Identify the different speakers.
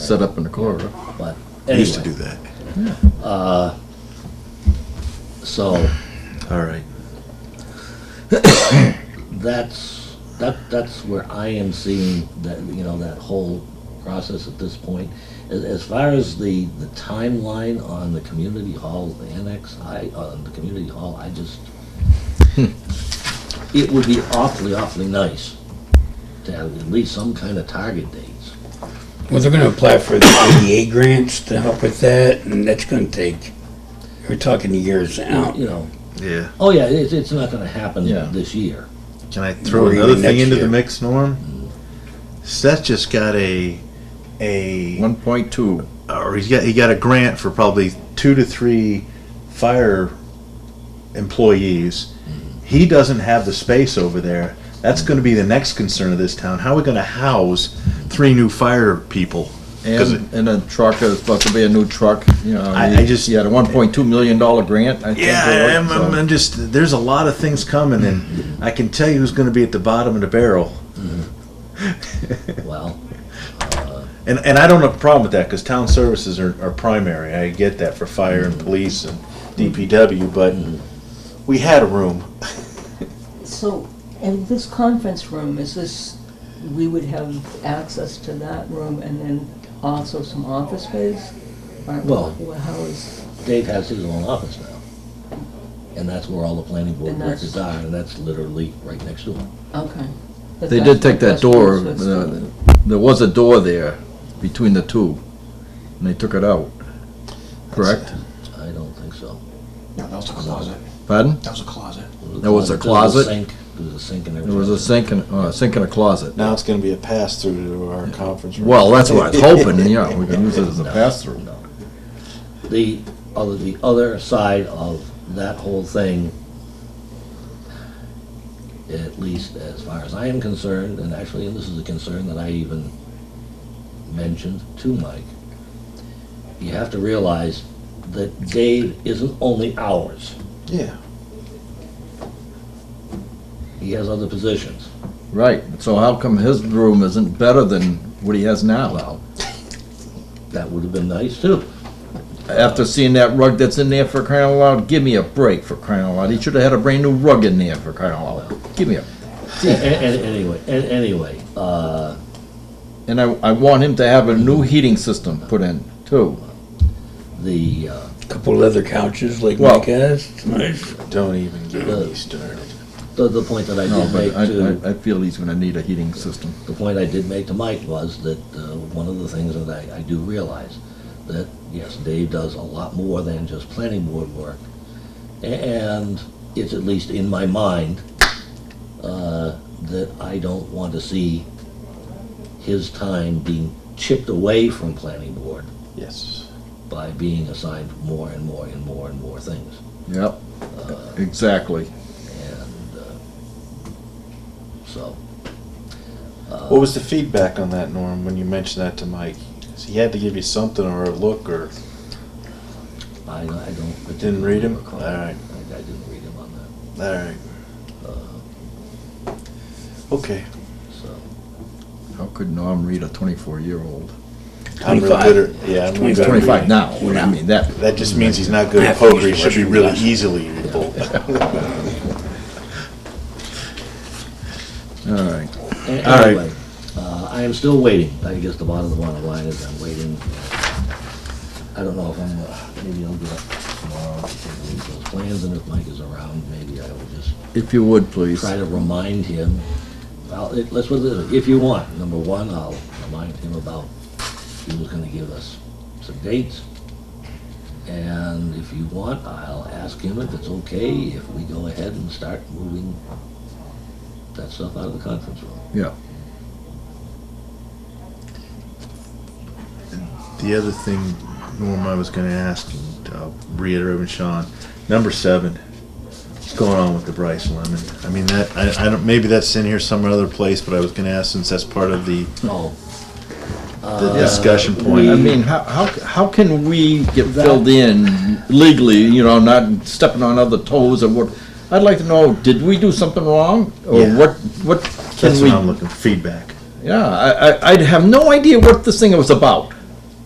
Speaker 1: set up in the corridor, but
Speaker 2: I used to
Speaker 1: anyway, Uh,
Speaker 2: do that.
Speaker 1: so
Speaker 2: All right.
Speaker 1: that's, that, that's where I am seeing that, you know, that whole process at this point. As, as far as the, the timeline on the community hall, the annex, I, on the community hall, I just,
Speaker 2: Hmm.
Speaker 1: it would be awfully, awfully nice to have at least some kind of target dates.
Speaker 3: Well, they're gonna apply for the ADA grants to help with that, and that's gonna take, we're talking years out.
Speaker 1: You know,
Speaker 2: Yeah.
Speaker 1: oh yeah, it's, it's not gonna happen
Speaker 2: Yeah.
Speaker 1: this year.
Speaker 2: Can I throw
Speaker 3: Or even
Speaker 2: another thing
Speaker 3: next
Speaker 2: into
Speaker 3: year.
Speaker 2: the mix, Norm? Seth just got a a
Speaker 4: One point two.
Speaker 2: or he's got he got a grant for probably two to three fire employees. He doesn't have the space over there. That's going to be the next concern of this town. How are we going to house three new fire people? 'Cause
Speaker 4: And, and a truck is supposed to be a new truck, you know.
Speaker 2: I-
Speaker 4: he-
Speaker 2: I just-
Speaker 4: He had a one point two million dollar grant, I think.
Speaker 2: Yeah,
Speaker 4: for it,
Speaker 2: I'm, I'm,
Speaker 4: so-
Speaker 2: I'm just. There's a lot of things coming, and I can tell you who's going to be at the bottom of the barrel.
Speaker 1: Well,
Speaker 2: And and I don't have a problem with that because town services are, are primary. I get that for fire and police and DPW, but we had a room.
Speaker 5: So, and this conference room, is this, we would have access to that room and then also some office space? Or
Speaker 1: Well-
Speaker 5: wh- How is,
Speaker 1: Dave has his own office now. And that's where all the planning board
Speaker 5: And that's-
Speaker 1: records are, and that's literally right next to him.
Speaker 5: okay. But
Speaker 4: They
Speaker 5: that's-
Speaker 4: did take that
Speaker 5: that's
Speaker 4: door,
Speaker 5: where it's
Speaker 4: uh,
Speaker 5: supposed
Speaker 4: there was a door there between the two, and they took it out, correct?
Speaker 1: I don't think so.
Speaker 6: No, that was a closet.
Speaker 4: Pardon?
Speaker 6: That was a closet.
Speaker 4: There was a
Speaker 1: There was a
Speaker 4: closet?
Speaker 1: sink, there was a sink and
Speaker 4: There
Speaker 1: everything.
Speaker 4: was a sink and, uh, sink and a closet.
Speaker 2: Now it's going to be a pass through to our conference room.
Speaker 4: Well, that's what I was hoping, and yeah, we can use it as a pass-through.
Speaker 1: The other, the other side of that whole thing, at least as far as I am concerned, and actually, and this is a concern that I even mentioned to Mike, you have to realize that Dave isn't only ours.
Speaker 2: yeah.
Speaker 1: He has other positions.
Speaker 4: Right, so how come his room isn't better than what he has now?
Speaker 1: That would have been nice too.
Speaker 4: After seeing that rug that's in there for crying out loud, give me a break for crying out loud. He should have had a brand new rug in there for crying out loud. Give me a
Speaker 1: A- a- Anyway, a- anyway, uh,
Speaker 4: And I, I want him to have a new heating system put in too.
Speaker 1: the, uh,
Speaker 3: Couple leather couches like
Speaker 4: Well-
Speaker 3: Mike has, it's nice.
Speaker 2: Don't even get me started.
Speaker 1: the, the point that I
Speaker 4: No,
Speaker 1: did
Speaker 4: Oh, but
Speaker 1: make to,
Speaker 4: I, I, I feel he's gonna need a heating system.
Speaker 1: the point I did make to Mike was that, uh, one of the things that I, I do realize, that, yes, Dave does a lot more than just planning board work. A- And it's at least in my mind, uh, that I don't want to see his time being chipped away from planning board
Speaker 2: Yes.
Speaker 1: by being assigned more and more and more and more things.
Speaker 4: Yep, exactly.
Speaker 1: And uh, so, uh,
Speaker 2: What was the feedback on that, Norm, when you mentioned that to Mike? He had to give you something or a look or
Speaker 1: I, I don't.
Speaker 2: Didn't read him?
Speaker 1: recall.
Speaker 2: Alright.
Speaker 1: I, I didn't read him on that,
Speaker 2: all right. Uh, Okay.
Speaker 1: so.
Speaker 4: How could Norm read a twenty-four year old?
Speaker 2: I'm really
Speaker 3: 25.
Speaker 2: good at, yeah, I'm really good at
Speaker 4: Twenty-five
Speaker 2: reading.
Speaker 4: now, what do you mean, that,
Speaker 2: That just means he's not good
Speaker 3: I
Speaker 2: at
Speaker 3: have to use
Speaker 2: poker. He
Speaker 3: the
Speaker 2: should be
Speaker 3: restroom
Speaker 2: really
Speaker 3: last.
Speaker 2: easily readable.
Speaker 4: all right.
Speaker 1: A-
Speaker 2: All right.
Speaker 1: Anyway, uh, I am still waiting, I guess the bottom of the bottom line is I'm waiting. I don't know if I'm, uh, maybe I'll get up tomorrow to take a look at those plans, and if Mike is around, maybe I will just
Speaker 4: If you would, please.
Speaker 1: try to remind him, well, it- let's, put it this way, if you want, number one, I'll remind him about, he was gonna give us some dates. And if you want, I'll ask him if it's okay if we go ahead and start moving that stuff out of the conference room.
Speaker 4: Yeah,
Speaker 2: The other thing, Norm, I was going to ask, and I'll reiterate with Sean, number seven. What's going on with the Bryce Lemon? I mean, that I, I don't. Maybe that's in here some other place, but I was going to ask since that's part of the,
Speaker 1: Oh,
Speaker 2: the discussion point.
Speaker 4: Uh, I mean, how, how, how can we get filled in legally, you know, not stepping on other toes or what? I'd like to know, did we do something wrong, or
Speaker 2: Yeah.
Speaker 4: what, what can
Speaker 2: that's
Speaker 4: we
Speaker 2: what I'm looking feedback.
Speaker 4: Yeah, I, I, I'd have no idea what this thing was about.